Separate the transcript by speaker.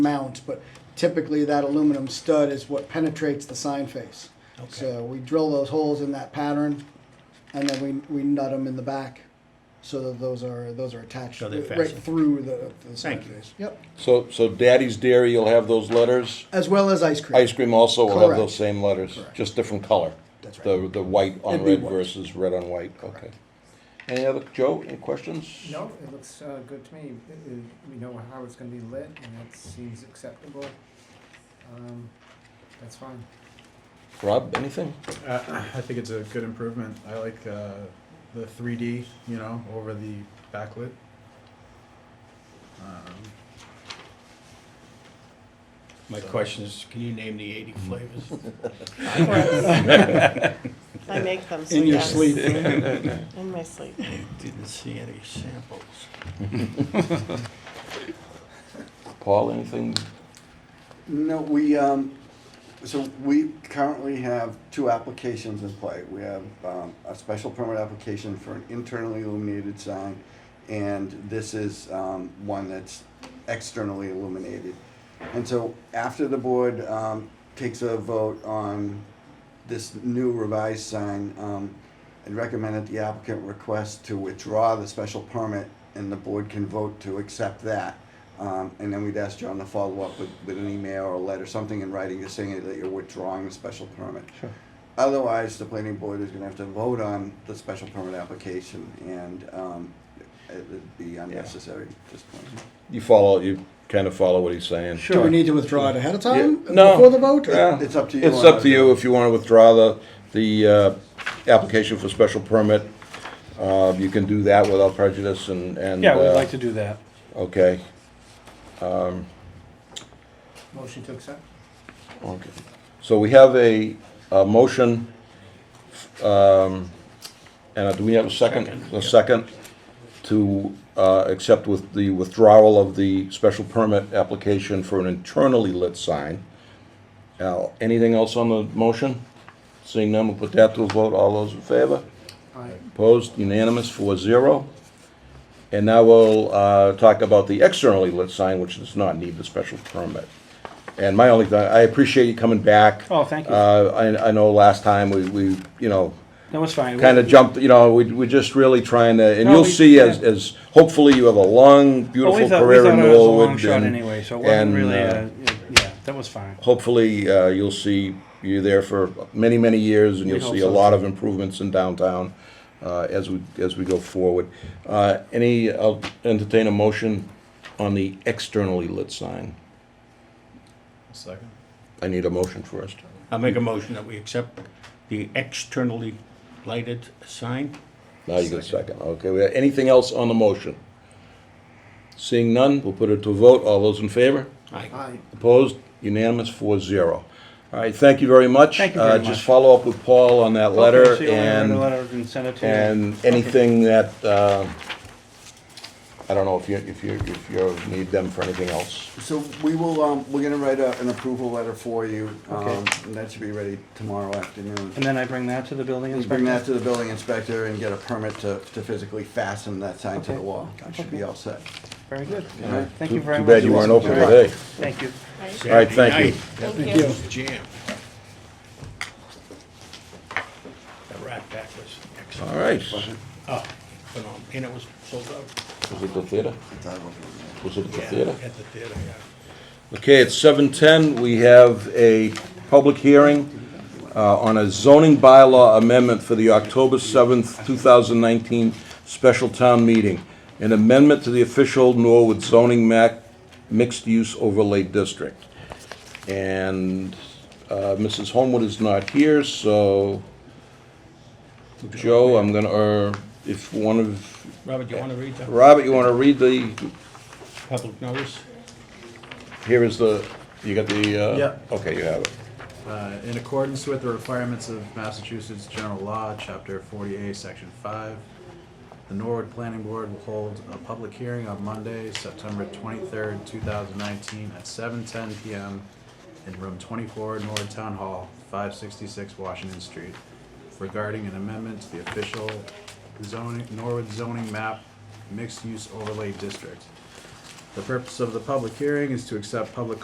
Speaker 1: mount, but typically that aluminum stud is what penetrates the sign face. So we drill those holes in that pattern, and then we, we nut them in the back, so that those are, those are attached
Speaker 2: So they're
Speaker 1: right
Speaker 2: fastened.
Speaker 1: through the, the sign
Speaker 2: Thank you.
Speaker 1: face. Yep,
Speaker 3: So, so Daddy's Dairy, you'll have those letters.
Speaker 1: as well as ice cream.
Speaker 3: Ice cream also will have
Speaker 1: Correct.
Speaker 3: those same letters,
Speaker 1: Correct.
Speaker 3: just different color.
Speaker 1: That's right.
Speaker 3: The, the white on
Speaker 1: It'd be
Speaker 3: red
Speaker 1: white.
Speaker 3: versus red on white, okay. Any other, Joe, any questions?
Speaker 4: No, it looks uh, good to me. It- it- We know how it's gonna be lit, and that seems acceptable. Um, That's fine.
Speaker 3: Rob, anything?
Speaker 5: Uh, I think it's a good improvement. I like uh, the 3D, you know, over the backlit. Um,
Speaker 2: My question is, can you name the 80 flavors?
Speaker 6: Of course. I make them. so
Speaker 1: In your
Speaker 6: yes.
Speaker 1: sleep.
Speaker 6: In my sleep.
Speaker 2: I didn't see any samples.
Speaker 3: Paul, anything?
Speaker 7: No, we, um, so we currently have two applications in play. We have, um, a special permit application for an internally illuminated sign, and this is, um, one that's externally illuminated. And so after the board, um, takes a vote on this new revised sign, um, I'd recommend that the applicant request to withdraw the special permit and the board can vote to accept that. Um, and then we'd ask John to follow up with, with an email or a letter, something in writing, just saying that you're withdrawing the special permit. Otherwise, the planning board is gonna have to vote on the special permit application and, um, it would be unnecessary at this point.
Speaker 3: You follow, you kind of follow what he's saying?
Speaker 1: Do we need to withdraw it ahead of time?
Speaker 3: Yeah. No.
Speaker 1: Before the vote?
Speaker 3: Yeah.
Speaker 7: It's up to you
Speaker 3: It's
Speaker 7: on
Speaker 3: up
Speaker 7: that.
Speaker 3: to you if you want to withdraw the, the, uh, application for special permit. Uh, you can do that without prejudice and, and.
Speaker 8: Yeah, we'd
Speaker 3: uh,
Speaker 8: like to do that.
Speaker 3: Okay,
Speaker 4: Motion to accept?
Speaker 3: Okay. So we have a, a motion, um, and uh, do we have a second?
Speaker 2: Second,
Speaker 3: A second to, uh, accept with the withdrawal of the special permit application for an internally lit sign. Now, anything else on the motion? Seeing none, we'll put that to a vote. All those in favor?
Speaker 4: Aye.
Speaker 3: Opposed, unanimous, four zero. And now we'll uh, talk about the externally lit sign, which does not need the special permit. And my only, thought- I appreciate you coming back.
Speaker 8: Oh, thank you.
Speaker 3: Uh, I, I know last time we, we, you know,
Speaker 8: No, it's fine.
Speaker 3: kind of jumped, you know, we, we're just really trying to, and
Speaker 8: No,
Speaker 3: you'll
Speaker 8: we-
Speaker 3: see as,
Speaker 8: yeah.
Speaker 3: as, hopefully you have a long,
Speaker 8: Well, we
Speaker 3: beautiful
Speaker 8: thought, we
Speaker 3: career in
Speaker 8: thought it was a long
Speaker 3: Norwood.
Speaker 8: shot
Speaker 3: and-
Speaker 8: anyway, so it wasn't
Speaker 3: and,
Speaker 8: really,
Speaker 3: uh,
Speaker 8: uh, yeah, that was fine.
Speaker 3: hopefully uh, you'll see you there for many many years and
Speaker 8: We
Speaker 3: you'll
Speaker 8: hope
Speaker 3: see a
Speaker 8: so.
Speaker 3: lot of improvements in downtown uh, as we as we go forward uh, any I'll entertain a motion on the externally lit sign
Speaker 5: Second.
Speaker 3: I need a motion first
Speaker 2: I'll make a motion that we accept the externally lighted sign.
Speaker 3: now you get a second okay we have anything else on the motion seeing none we'll put it to a vote all those in favor
Speaker 2: I
Speaker 4: Aye.
Speaker 3: opposed unanimous 4-0 all right thank you very much
Speaker 8: Thank you very
Speaker 3: uh,
Speaker 8: much.
Speaker 3: just follow up with Paul on that letter
Speaker 8: Okay, so you'll have
Speaker 3: and
Speaker 8: the letter and send it to you.
Speaker 3: And anything that, uh, I don't know if you, if you, if you need them for anything else.
Speaker 7: So we will, um, we're gonna write a, an approval letter for you, um,
Speaker 8: Okay.
Speaker 7: and that should be ready tomorrow afternoon.
Speaker 8: And then I bring that to the building
Speaker 7: And
Speaker 8: inspector?
Speaker 7: bring that to the building inspector and get a permit to, to physically fasten that sign to the
Speaker 8: Okay.
Speaker 7: wall. That should be all set.
Speaker 8: Very good.
Speaker 7: Alright.
Speaker 8: Thank you very
Speaker 3: Too
Speaker 8: much.
Speaker 3: bad you weren't open today.
Speaker 8: Thank you.
Speaker 6: Right?
Speaker 3: All right, thank you.
Speaker 6: Thank you.
Speaker 2: Jam. The Rat Pack was excellent.
Speaker 3: All right.
Speaker 2: Oh, phenomenal. And it was sold out.
Speaker 3: Was it the theater? Was it the
Speaker 2: Yeah,
Speaker 3: theater?
Speaker 2: At the theater, yeah.
Speaker 3: Okay, it's seven ten. We have a public hearing uh, on a zoning bylaw amendment for the October seventh, two thousand nineteen special town meeting. An amendment to the official Norwood zoning map mixed-use overlay district. And uh, Mrs. Homewood is not here, so Joe, I'm gonna, or if one of,
Speaker 2: Robert, you want to read the
Speaker 3: Robert, you wanna read the
Speaker 2: public notice?
Speaker 3: Here is the, you got the, uh?
Speaker 5: Yeah.
Speaker 3: Okay, you have it.
Speaker 5: Uh, in accordance with the requirements of Massachusetts General Law, Chapter 48, Section 5, the Norwood Planning Board will hold a public hearing on Monday, September 23rd, 2019, at 7:10 PM in Room 24, Norwood Town Hall, 566 Washington Street, regarding an amendment to the official zoning, Norwood zoning map mixed-use overlay district. The purpose of the public hearing is to accept public